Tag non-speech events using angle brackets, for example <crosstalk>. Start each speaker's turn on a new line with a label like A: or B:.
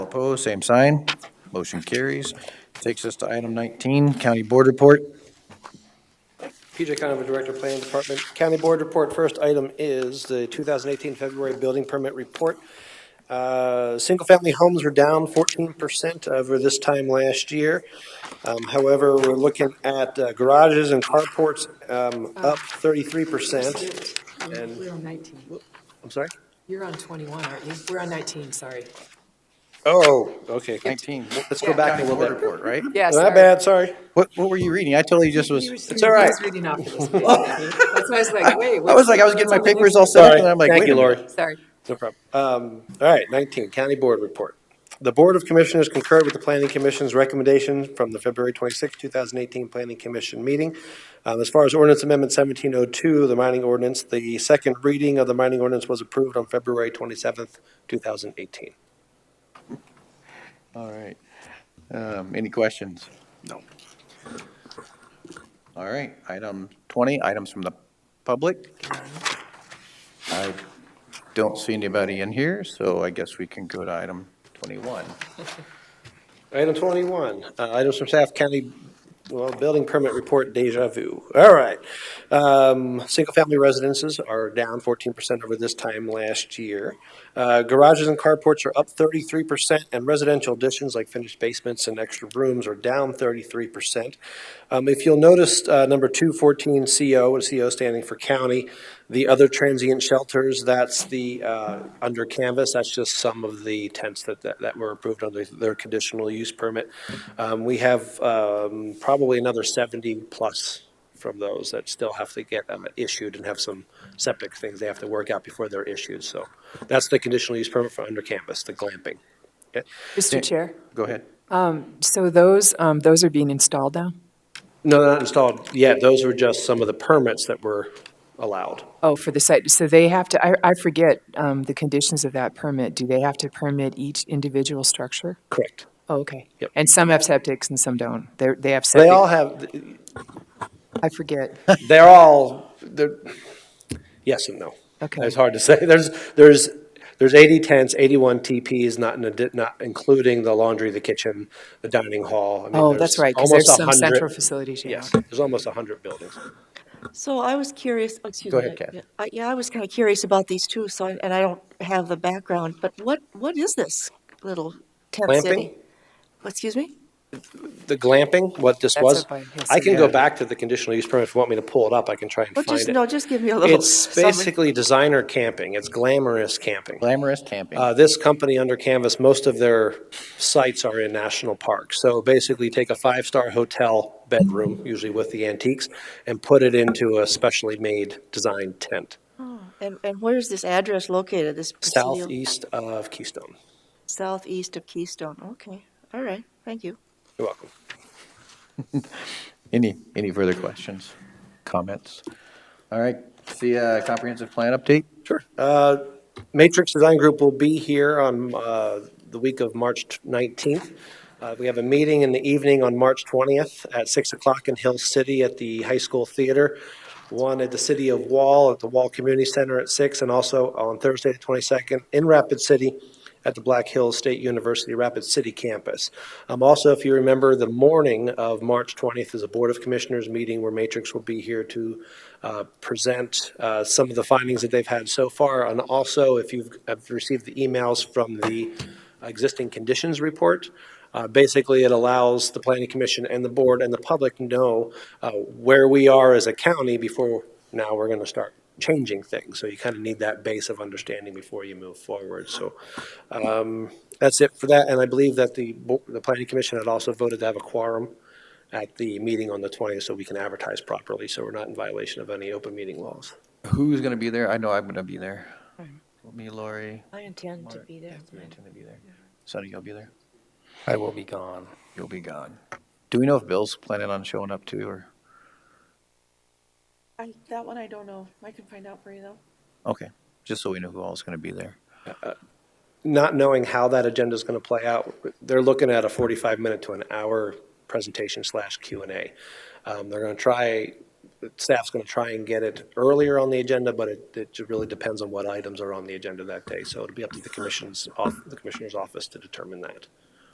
A: Opposed, same sign. Motion carries. Takes us to item 19, County Board Report.
B: PJ Conover, Director of Planning Department. County Board Report, first item is the 2018 February Building Permit Report. Uh, Single-family homes were down 14% over this time last year. Um, However, we're looking at uh, garages and carports um, up 33%. And-
C: Um, We're on 19.
B: I'm sorry?
C: You're on 21, aren't you? We're on 19, sorry.
B: Oh, okay.
A: 19.
B: Let's go back a little
A: Board
B: bit.
A: Report, right?
C: Yes.
B: My bad, sorry.
A: What, what were you reading? I totally just was,
C: It's
B: all right.
C: reading off of this page. That's why I was like, wait.
A: I was like, I was getting my papers all set up and I'm
B: Sorry.
A: like,
B: Thank
A: wait a
B: you,
A: minute.
B: Lori.
C: Sorry.
B: No problem. Um, all right, nineteen, county board report. The Board of Commissioners concurred with the Planning Commission's recommendation from the February twenty-sixth, two thousand eighteen Planning Commission meeting. Um, as far as ordinance amendment seventeen oh two, the mining ordinance, the second reading of the mining ordinance was approved on February twenty-seventh, two thousand eighteen.
A: All right. Um, any questions? No. All right, item twenty, items from the public. I don't see anybody in here, so I guess we can go to item twenty-one.
B: Item twenty-one, uh, items from staff, county, well, building permit report deja vu. All right. Um, single-family residences are down fourteen percent over this time last year. Uh, garages and carports are up thirty-three percent, and residential additions like finished basements and extra rooms are down thirty-three percent. Um, if you'll notice, uh, number two fourteen CO, and CO standing for county, the other transient shelters, that's the, uh, under canvas, that's just some of the tents that, that, that were approved under their conditional use permit. Um, we have, um, probably another seventy-plus from those that still have to get um, issued and have some septic things they have to work out before they're issued, so. That's the conditional use permit for under canvas, the glamping.
C: Mr. Chair,
A: Go ahead.
C: so those, um, those are being installed now?
B: No, they're not installed yet, those were just some of the permits that were allowed.
C: Oh, for the site, so they have to, I, I forget um, the conditions of that permit. Do they have to permit each individual structure?
B: Correct.
C: Oh, okay.
B: Yep.
C: And some have septics and some don't. They're, they have
B: They all
C: septic.
B: have,
C: I forget.
B: they're all, they're, yes and no.
C: Okay.
B: It's hard to say. <laughs> There's, there's, there's 80 tents, 81 TPs, not, in addi- not including the laundry, the kitchen, the dining hall. I mean,
C: Oh, that's
B: there's
C: right, because
B: almost
C: there's some
B: 100
C: central facilities. yeah.
B: Yes, there's almost 100 buildings.
D: So I was curious, oh, excuse
A: Go
D: me.
A: ahead, Kathy.
D: yeah, I- Yeah, I was kind of curious about these too, so, I- and I don't have the background, but what, what is this little tent
B: Glamping?
D: city? What, Excuse me?
B: The glamping, what this
C: That's
B: was,
C: up by- yes,
B: I can
C: yeah.
B: go back to the conditional use permit if you want me to pull it up. I can try and
D: Well,
B: find
D: just,
B: it.
D: no, just give me a little.
B: It's
D: summary.
B: basically designer camping. It's glamorous camping.
A: Glamorous camping.
B: Uh, this company under canvas, most of their sites are in national parks. So basically take a five-star hotel bedroom, usually with the antiques, and put it into a specially made designed tent
D: And, and where is this address located, this? Presidio-
B: southeast of Keystone.
D: Southeast of Keystone, okay, all right, thank you.
B: You're welcome.
A: Any, any further questions, comments? All right, see, uh, comprehensive plan update?
B: Sure. Uh, Matrix Design Group will be here on uh, the week of March 19th. Uh, We have a meeting in the evening on March 20th at 6 o'clock in Hill City at the High School Theater, one at the City of Wall, at the Wall Community Center at 6, and also on Thursday, the 22nd, in Rapid City at the Black Hills State University Rapid City campus. Um, Also, if you remember, the morning of March 20th is a Board of Commissioners meeting where Matrix will be here to uh, present uh, some of the findings that they've had so far. And also, if you've have received the emails from the existing conditions report, uh, basically, it allows the Planning Commission and the board and the public to know uh, where we are as a county before now we're going to start changing things. So you kind of need that base of understanding before you move forward. So um, that's it for that. And I believe that the, bo- the planning commission had also voted to have a quorum at the meeting on the 20th so we can advertise properly, so we're not in violation of any open meeting laws.
A: Who's gonna be there? I know I'm gonna be there. Me, Lori.
D: I intend to be there.
A: You intend to be there. Sonny, you'll be there?
B: I will be gone.
A: You'll be gone. Do we know if Bill's planning on showing up too, or?
E: I, that one I don't know. I can find out for you though.
A: Okay, just so we know who all is going to be there.
B: Not knowing how that agenda is going to play out, they're looking at a 45-minute to an hour presentation slash Q and A. Um, They're going to try staff's going to try and get it earlier on the agenda, but it, it just really depends on what items are on the agenda that day. So it'll be up to the commission's, off- the commissioner's office to determine that.